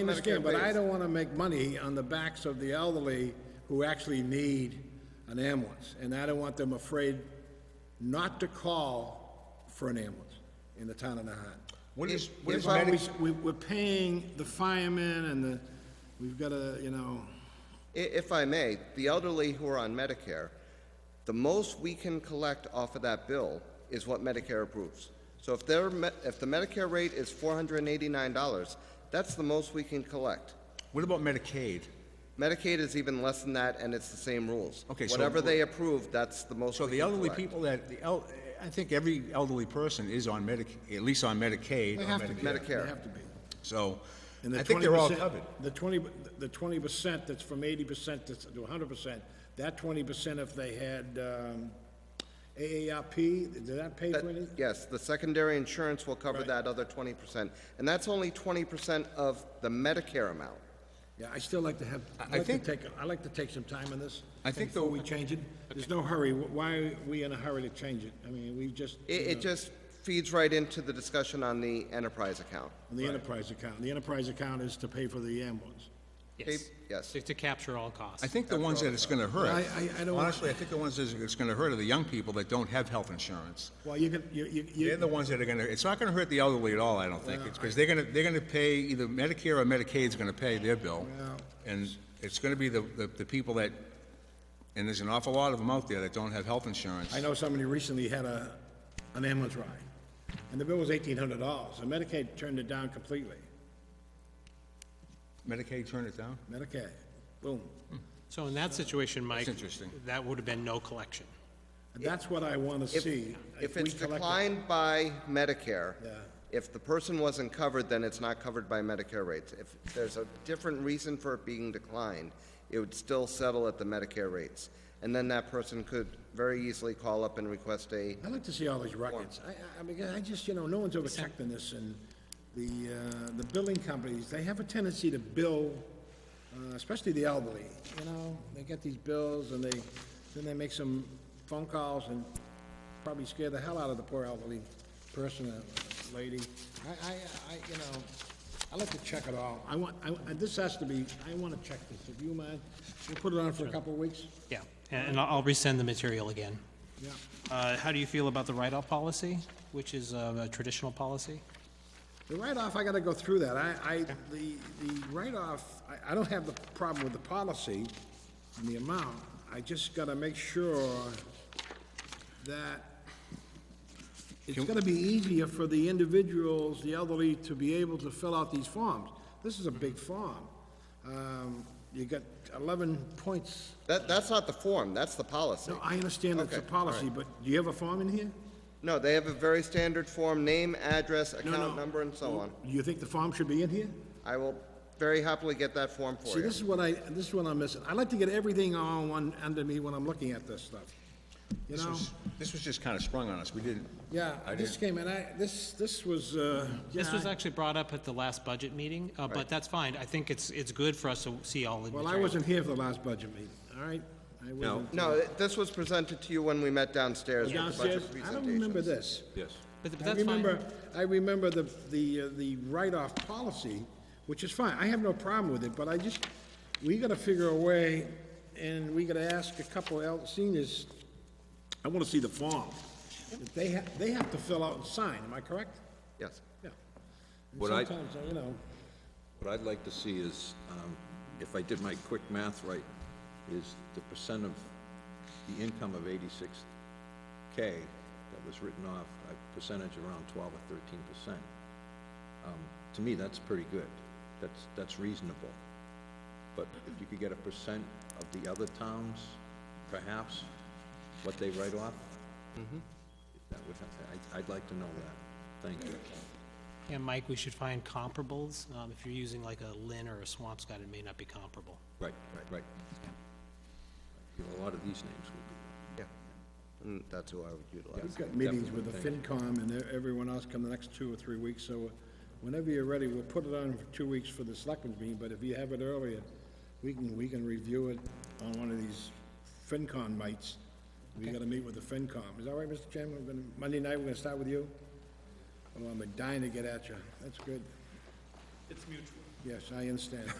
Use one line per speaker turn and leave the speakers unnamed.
I understand, but I
Medicare
don't want to make money on the backs of the elderly who actually need an ambulance. And I don't want them afraid not to call for an ambulance in the town of Nahat.
What is, what
That's
is
why
Medi-
we, we- we're paying the firemen and the, we've got to, you know,
I- If I may, the elderly who are on Medicare, the most we can collect off of that bill is what Medicare approves. So if their, me- if the Medicare rate is four hundred and eighty-nine dollars, that's the most we can collect.
what about Medicaid?
Medicaid is even less than that, and it's the same rules.
Okay, so-
Whatever they approve, that's the most
So
we
the
can
elderly
collect.
people that, the el, I think every elderly person is on Medic, at least on Medicaid
they
or
have to be.
Medicare.
They
Medicare.
have to be.
So,
And the
I think they're all
20%
covered.
The twenty, the twenty percent that's from eighty percent to hundred percent, that twenty percent if they had, um, AARP, did that pay for anything?
Yes, the secondary insurance will cover that other twenty percent, and that's only twenty percent of the Medicare amount.
Yeah, I still like to have,
I
I'd like to
think-
take, I'd like to take some time on this.
I think
Before
the-
we change it. There's no hurry. Wh- Why are we in a hurry to change it? I mean, we just.
It,
you
it
know,
just feeds right into the discussion on the enterprise account.
on The enterprise account. The enterprise account is to pay for the ambulance.
Yes. Yes.
To- To capture all costs.
I think the ones that it's gonna hurt.
I- I- I don't-
Honestly, I think the ones that it's gonna hurt are the young people that don't have health insurance.
Well, you could, you, you,
They're the
you,
ones that are gonna, it's not gonna hurt the elderly at all, I don't think, because they're gonna, they're gonna pay, either Medicare or Medicaid's gonna pay their bill. And it's gonna be the, the, the people that, and there's an awful lot of them out there that don't have health insurance.
I know somebody recently had a, an ambulance ride, and the bill was eighteen hundred dollars, and Medicaid turned it down completely.
Medicaid turned it down?
Medicaid, boom.
So in that situation, Mike.
interesting.
That would have been no collection.
And that's what I wanna see.
If
we
it's
collect it.
declined by Medicare,
Yeah.
if the person wasn't covered, then it's not covered by Medicare rates. If there's a different reason for it being declined, it would still settle at the Medicare rates. And then that person could very easily call up and request a,
I'd like to see all these records. I, I- I mean, I just, you know, no one's ever checked on this, and the, uh, the billing companies, they have a tendency to bill, uh, especially the elderly, you know? They get these bills, and they, then they make some phone calls and probably scare the hell out of the poor elderly person, uh, lady. I, I, I, you know, I like to check it all. I want, I, I- this has to be, I wanna check this, if you mind. We'll put it on for a couple of weeks.
Yeah, and and I'll I'll resend the material again.
Yeah.
Uh, How do you feel about the write-off policy, which is uh, a traditional policy?
The write-off, I gotta go through that. I, I, the, the write-off, I, I don't have the problem with the policy and the amount. I just gotta make sure that it's gonna be easier for the individuals, the elderly, to be able to fill out these forms. This is a big form. Um, you got eleven points.
that, that's not the form, that's the policy.
No, I understand it's a
Okay,
policy, but do you have a form in here?
No, they have a very standard form, name, address,
no.
account number, and so on.
Do you think the form should be in here?
I will very happily get that form for
See,
you.
this is what I, this is what I'm missing. I like to get everything all on one under me when I'm looking at this stuff. You
This
know?
was, this was just kinda sprung on us, we didn't.
Yeah,
I
this
didn't,
came in, I, this, this was, uh,
This
yeah,
was
I-
actually brought up at the last budget meeting, uh, but that's fine. I think it's, it's good for us to see all the
well, I
material.
wasn't here for the last budget meeting, all right? I wasn't.
No, th- this was presented to you when we met downstairs with the
Downstairs,
budget
I
presentation.
don't remember this.
Yes.
But but
I
that's fine.
remember, I remember the, the, uh, the write-off policy, which is fine, I have no problem with it, but I just, we gotta figure a way, and we gotta ask a couple el seniors, I wanna see the form. If They ha, they have to fill out and sign, am I correct?
Yes.
Yeah. And
What I-
Sometimes, uh, you know,
What I'd like to see is, um, if I did my quick math right, is the percent of the income of eighty-six K that was written off, a percentage around twelve or thirteen percent. Um, To me, that's pretty good. That's, that's reasonable. But if you could get a percent of the other towns, perhaps, what they write off, that would, I, I'd like to know that. Thank you.
Yeah, Mike, we should find comparables. Um, If you're using like a Lynn or a Swampscott, it may not be comparable.
Right, right, right. You know, A lot of these names would be.
Yeah. And that's who I would utilize.
we've got meetings with the FinCom and e- everyone else come the next two or three weeks, so uh, whenever you're ready, we'll put it on for two weeks for the selectmen's meeting, but if you have it earlier, we can, we can review it on one of these FinCon nights. We gotta meet with the FinCom. Is that right, Mr. Chairman? We're gonna, Monday night, we're gonna start with you? Oh, I'm dying to get at you. That's good. Yes, I understand.